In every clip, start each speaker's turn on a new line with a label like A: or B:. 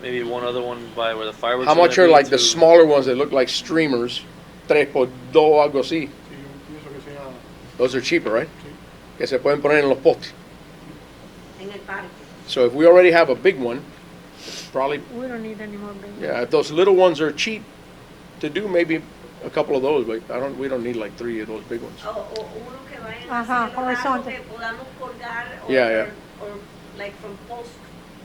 A: maybe one other one by where the fireworks.
B: How much
A: gonna
B: are
A: be
B: like the
A: to-
B: smaller ones that look like streamers? Tres por dos, algo así.
C: Sí, yo pienso que sea.
B: Those are cheaper, right?
C: Sí.
B: Que se pueden poner en los postes.
D: en el parque.
B: So if we already have a big one, it's probably
E: We don't need any more big.
B: Yeah, if those little ones are cheap to do, maybe a couple of those, but I don't, we don't need like three of those big ones.
D: O, o uno que vaya
E: Ajá, horizonte.
D: que podamos colgar o,
B: Yeah, yeah.
D: or- or, like from post,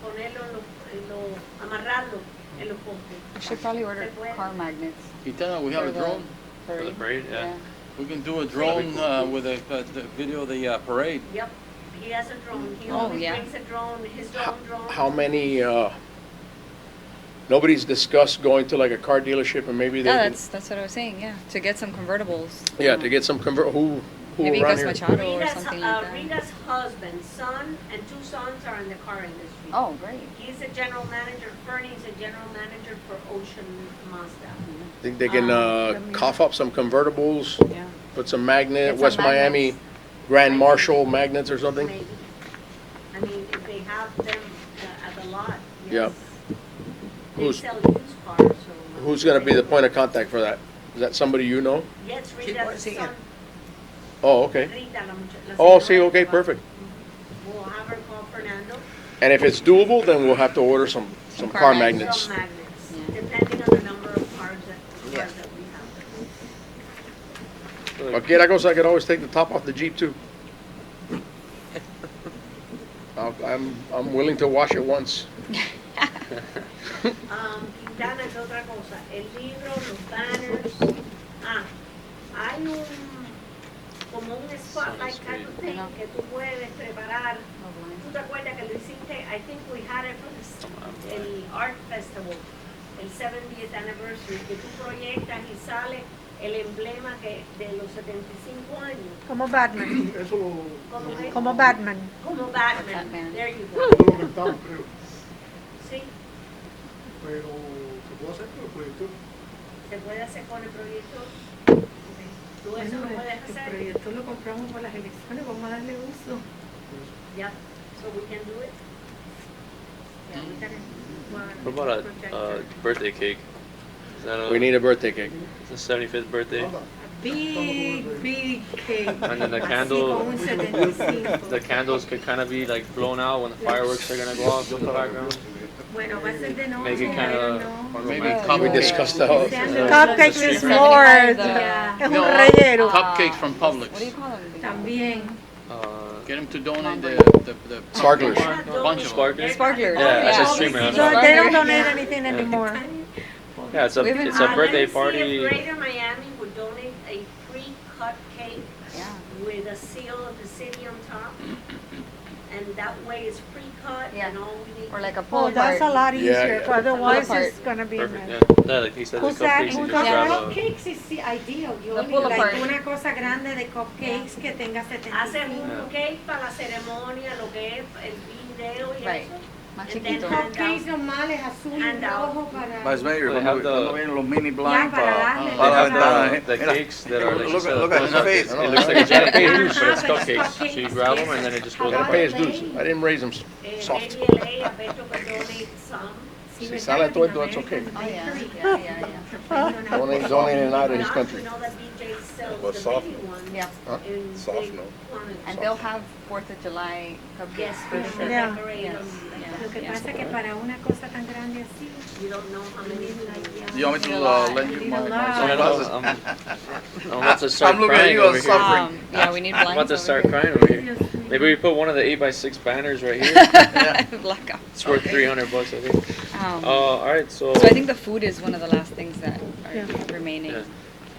D: ponerlo en los, en los- amarrarlo en los postes.
F: We should probably order
D: Se puede.
F: car magnets.
G: Itana, we have
F: for
G: a
F: the
G: drone.
A: For the
F: parade.
A: parade, yeah.
G: We can do a drone uh, with a, uh, the video of the uh, parade.
D: Yep, he has a drone, he
F: Oh,
D: always
F: yeah.
D: brings a drone, his own drone.
B: How many, uh, nobody's discussed going to like a car dealership and maybe they
F: Yeah,
B: can,
F: Oh, that's, that's what I was saying, yeah, to get some convertibles.
B: yeah, to get some convert, who,
F: Maybe
B: who around
F: Gus
B: here?
F: Machado or
D: Rita's,
F: something
D: uh,
F: like that.
D: Rita's husband, son, and two sons are in the car industry.
F: Oh, great.
D: He's a general manager, Fernie's a general manager for Ocean Mazda.
B: Think they can, uh, cough up some convertibles,
F: Ah, Yeah.
B: put some magnet,
F: Get some
B: West Miami
F: magnets.
B: Grand Marshal magnets or something?
D: Maybe. I mean, if they have them uh, at the lot,
B: Yep.
D: yes. They
B: Who's-
D: sell used cars, so. uh,
B: Who's gonna be the point of contact for that? Is that somebody you know?
D: Yes,
H: Sí, por-
D: Rita's
H: sí,
D: son,
B: Oh, okay.
D: Rita, la mucha- la
B: Oh,
D: señora
B: see,
D: que
B: okay,
D: trabaja.
B: perfect.
D: We'll have her call Fernando.
B: And if it's doable, then we'll have to order some, some
F: car
B: car
F: magnets.
B: magnets.
D: Some magnets,
F: Yeah.
D: depending on the number of cars that,
H: Yeah.
D: cars that we have.
A: So, like,
B: Cualquiera cosa, I could always take the top off the Jeep too. I'll- I'm, I'm willing to wash it once.
D: Um, Quintana, ¿qué otra cosa? El libro, los banners. Ah, hay un, como un spotlight kind of thing
F: Ajá.
D: que tú puedes preparar.
F: Oh, boy.
D: ¿Tú te acuerdas que lo hiciste? I think we had it for this- el Art Festival, el 70th anniversary, que tú proyectas y sale el emblema que, de los 75 años.
E: Como Batman,
C: Eso lo,
D: ¿Cómo es?
E: como Batman.
D: Como Batman.
F: Batman.
D: There you go.
C: eso lo rentamos, creo.
D: Sí,
C: Pero se puede hacer con el proyector.
D: se puede hacer con el proyector. Ok. Tú eso lo
H: Bueno,
D: puedes
H: el
D: hacer.
H: proyecto lo compramos por las elecciones, vamos a darle uso.
D: Yeah, so we can do it? Yeah, we can.
A: What about a uh, birthday cake? Is that a,
B: We need a birthday cake.
A: it's the 75th birthday.
C: Anda,
H: Big, big cake.
A: And then the
H: Así
A: candle-
H: con un 75.
A: The candles could kind of be like blown out when the fireworks are gonna go off in the background.
H: Bueno, va a ser de noche,
A: Make it
H: I
A: kind of
H: don't know.
G: Maybe
F: Yeah.
B: We
G: cupcake.
B: discussed the
H: Que
B: whole.
H: sean los-
E: Cupcake
A: the
E: is
A: street.
E: more,
F: Yeah.
E: es un
G: No,
E: rellero.
G: Cupcakes from
H: Ah,
F: What do you
G: Publix.
F: call them?
H: También.
A: Uh,
G: Get them to donate the, the, the.
B: Sparklers.
G: Bunch of them.
A: Sparklers?
F: Sparklers.
A: Yeah,
F: that's
A: a streamer,
E: So
A: that's
E: they don't
H: Yeah.
E: donate anything anymore.
A: yeah, it's a
F: We've been-
A: it's a
D: Uh,
A: birthday
D: let me see if
A: party.
D: Greater Miami would donate a pre-cut cake
F: Yeah.
D: with a seal of the city on top. And that way it's pre-cut
F: Yeah.
D: and all we need.
F: Or like a pool
E: Oh, that's a
F: party.
E: lot
B: Yeah,
E: easier,
B: yeah.
E: otherwise
F: Apart.
E: it's gonna be. a
A: Perfect. Yeah.
E: mess.
A: yeah, like he said, the
E: Who's that?
A: cupcakes. You
E: Who's
A: just
F: that?
A: grab a,
H: Cupcakes is the ideal, yo
F: The
H: ni-
F: pull
H: like
F: apart.
H: una cosa grande de cupcakes que tenga 75.
D: Hacen un cake para la ceremonia, lo que es el video y
F: Right.
D: eso.
F: Más
D: And then
F: chiquito.
D: hand
H: Cupcakes normales, azul y
D: And out.
H: rojo para...
I: Vice Mayor,
A: They
I: cuando,
A: have the-
I: cuando ven los mini
H: Ya,
I: blind
H: para
I: pa-
H: darle.
A: they
I: Well,
H: la-
A: have
I: I've done it.
A: the, the
I: Mira,
A: cakes that are like
I: look
A: just
I: at-
A: a
I: look at his
A: blown-out
I: face.
A: cake. It looks like a giant cake, but it's cupcakes. So you grab them and then it just goes
B: Gotta
A: up.
B: pay his dues. I didn't raise them.
D: Eh,
B: Soft.
D: maybe LA, I bet you could donate some.
H: Sí,
B: Si
H: ¿verdad?
B: sale todo esto, it's
H: American
B: okay.
F: Oh, yeah,
H: bakery.
F: yeah, yeah, yeah.
B: Donate, donate and out of this
D: Not,
B: country.
D: You know that DJ sells
I: Well,
D: the
I: soft.
D: mini ones
F: Yeah.
B: Huh?
D: in
I: Soft,
D: big
I: no.
D: quantities.
F: And they'll have Fourth of July cupcakes
D: Yes,
F: for
D: we
F: sure.
D: should
E: Yeah.
D: decorate
F: Yes,
D: them like
F: yeah.
H: Lo que pasa que para una cosa tan grande así,
D: that. You don't know how many
F: Mm-hmm.
D: like,
I: You want me to uh, lend you my, my
A: I don't
I: sunglasses?
A: know, I'm, I'm about to start
I: I'm looking at
A: crying
I: you,
A: over
I: I'm
A: here.
I: sorry.
F: Um, yeah, we need
A: I'm about
F: blinds
A: to
F: over
A: start crying over here.
H: Dios mío.
A: Maybe we put one of the eight by six banners right here.
F: here. Blackout.
A: It's worth three hundred bucks, I think.
F: Um,
A: Uh, all right, so.
F: So I think the food is one of the last things that
E: Yeah.
F: are remaining.
A: Yeah.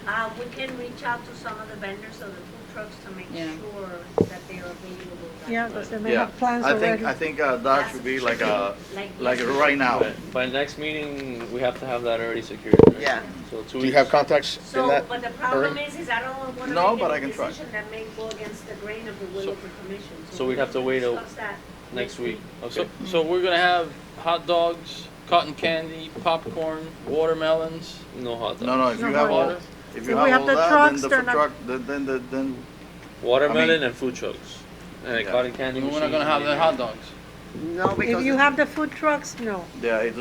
D: Uh, we can reach out to some of the vendors of the food trucks to make
F: Yeah.
D: sure that they are available. that
E: Yeah,
D: day.
E: because they may
I: Yeah,
E: have plans
I: I think,
E: already.
I: I think uh, that should be like a, like
D: yes.
I: right now.
A: but by next meeting, we have to have that already secured. right?
H: Yeah.
A: So two
B: Do you
A: weeks.
B: have contacts in
D: So,
B: that?
D: but the problem
B: Alright.
D: is, is I don't wanna
I: No,
D: make
I: but I
D: any
I: can try.
D: decision that may go against the grain of the will
A: So-
D: of the commission.
A: so
D: we
A: we'd have to wait a-
D: discuss that
A: Next week. Okay.
G: So, so we're gonna have hot dogs, cotton candy, popcorn, watermelons.
A: no hot dog.
I: No, no, if you
E: No,
I: have all,
E: but-
I: if
E: So
I: you
E: we
I: have
E: have
I: all
E: the
I: that,
E: trucks,
I: then the
E: they're
I: food
E: not-
I: truck, then, then, the- then,
A: Watermelon
I: I mean-
A: and food trucks. And
I: Yeah.
A: cotton candy.
G: We're not
A: machine,
G: gonna have the
A: maybe.
G: hot dogs.
H: No,
E: If you
H: because
E: have the food trucks, no.
I: yeah, it